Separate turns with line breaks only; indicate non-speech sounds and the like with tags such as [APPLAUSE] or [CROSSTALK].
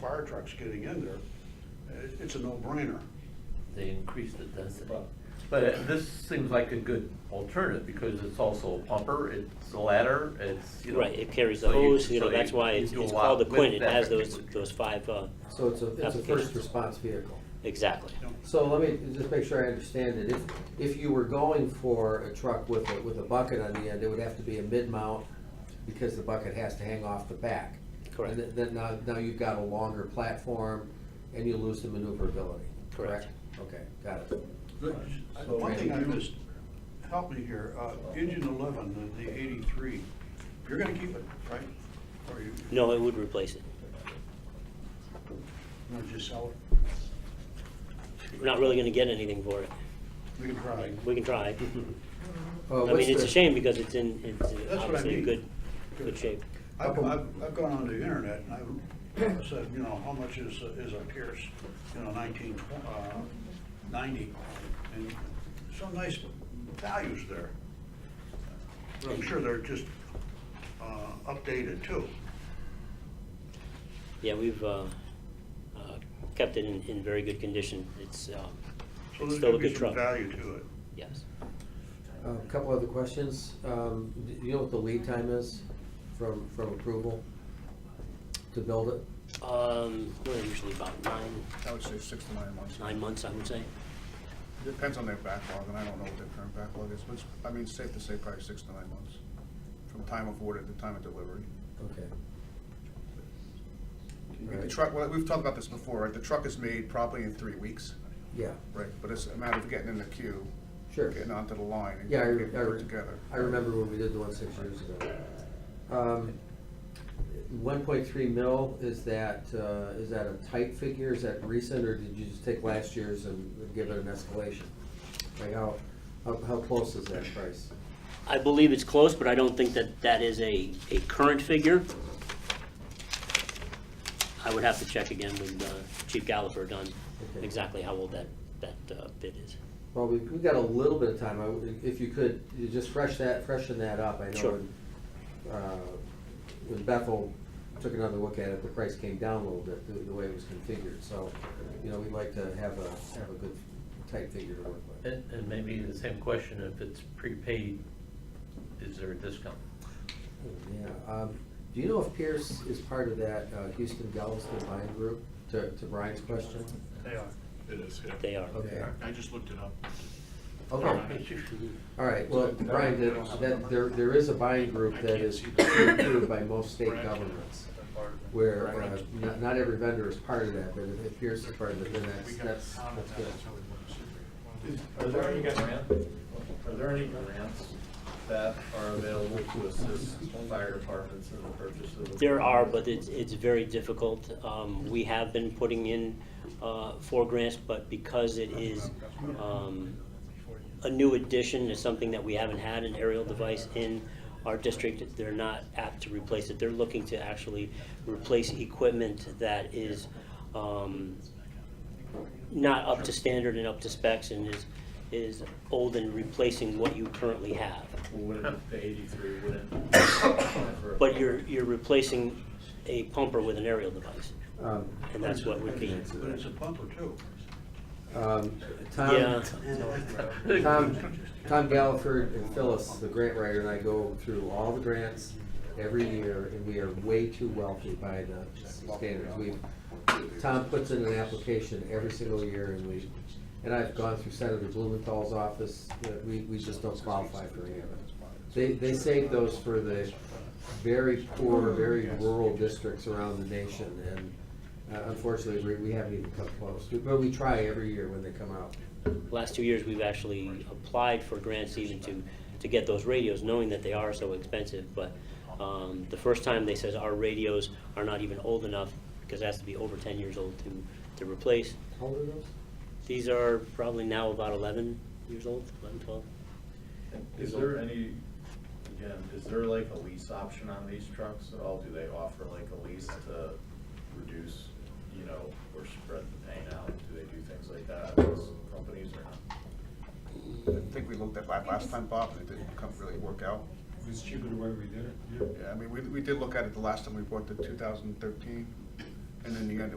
fire trucks getting in there, it- it's a no-brainer.
They increased it, that's it.
But it- this seems like a good alternative because it's also a pumper, it's a ladder, it's, you know.
Right, it carries the
so you-
hose, you know,
so
that's why
you
it's
do a
it's
lot
called a
with
Quinn, it
that
has those,
particular-
those five, uh,
So it's a, it's a
Applications.
first response vehicle.
exactly.
You know,
So let me just make sure I understand it. If, if you were going for a truck with a, with a bucket on the end, it would have to be a mid-mount because the bucket has to hang off the back.
Correct.
And then now, now you've got a longer platform and you lose the maneuverability, correct?
Correct.
Okay, got it.
The- I- One thing I missed, help me here, uh, engine eleven, the- the eighty-three, you're gonna keep it, right? Or you,
No, it would replace it.
you're gonna just sell it?
We're not really gonna get anything for it.
We can try.
We
[LAUGHS]
can try.
Uh,
I
what's
mean, it's
the-
a shame because it's in, it's in
That's what I
obviously in
mean.
good, good shape.
I've, I've, I've gone onto the internet and I've said, you know, how much is, a- is a Pierce, you know, nineteen, tw- uh, ninety? And some nice values there. But I'm sure they're just, uh, updated too.
Yeah, we've uh, uh, kept it in, in very good condition. It's, um,
So
it's
there's
still
gonna
a
be
good
some
truck.
value to it.
Yes.
A Uh, couple other questions. Um, do you know what the lead time is from, from approval to build it?
Um, We're usually about nine,
I would say six to nine months.
nine months, I would say.
Depends on their backlog, and I don't know what their current backlog is, but it's- I mean, it's safe to say probably six to nine months from time of order to time of delivery.
Okay.
The
Right.
truck, well, we've talked about this before, right? The truck is made probably in three weeks,
Yeah,
right? But it's a matter of getting in the queue,
sure.
getting onto the line and
Yeah, I,
getting
re-
it
I,
put
re-
together.
I remember when we did the one six years ago. One point three mil, is that, uh, is that a tight figure, is that recent, or did you just take last year's and give it an escalation? Like how, how, how close is that price?
I believe it's close, but I don't think that that is a, a current figure. I would have to check again with uh, Chief Gallagher on
Okay.
exactly how old that, that uh, bid is.
Well, we, we got a little bit of time, I would- if you could, you just fresh that, freshen that up, I know.
Sure.
when, uh, When Bethel took another look at it, the price came down a little bit, the, the way it was configured, so, you know, we'd like to have a, have a good tight figure to work with.
And, and maybe the same question, if it's prepaid, is there a discount?
Yeah, um, do you know if Pierce is part of that uh, Houston Galveston buying group, to, to Brian's question?
They are. It is, yeah.
They are.
Okay,
I just looked it up.
okay, all right, well, Brian, that, that, there, there is a buying group that is approved by most state governments. where uh,
Correct.
not, not every vendor is part of that, but if it appears to part of it, then that's,
We got
that's,
counted
that's
that,
good.
that's how we
Is-
won.
Are there any grants, are there any grants that are available to assist fire departments in the purchase of?
There are, but it's, it's very difficult. Um, we have been putting in, uh, four grants, but because it is, um, a new addition, is something that we haven't had an aerial device in our district, they're not apt to replace it. They're looking to actually replace equipment that is, um, not up to standard and up to specs and is, is old and replacing what you currently have.
Wouldn't, the eighty-three wouldn't. apply for a-
But you're, you're replacing a pumper with an aerial device,
Um,
and that's what would be.
But it's a pumper too.
um,
Yeah.
Tom,
[LAUGHS]
Tom, Tom Gallagher and Phyllis, the grant writer, and I go through all the grants every year, and we are way too wealthy by the standards. We, Tom puts in an application every single year, and we, and I've gone through Senator Blumenthal's office, that we, we just don't qualify for any of it. They, they save those for the very poor, very rural districts around the nation, and uh, unfortunately, we, we haven't even come close. But we try every year when they come out.
Last two years, we've actually applied for grants even to, to get those radios, knowing that they are so expensive, but, um, the first time they says our radios are not even old enough, because it has to be over ten years old to, to replace.
How old are those?
These are probably now about eleven years old, eleven, twelve.
Is there any, again, is there like a lease option on these trucks at all? Do they offer like a lease to reduce, you know, or spread the pain out? Do they do things like that, on these companies or not?
I think we looked at that last time, Bob, and it didn't come, really work out.
It's cheaper the way we did it.
Yeah, I mean, we, we did look at it the last time we bought the two thousand thirteen, and in the end, it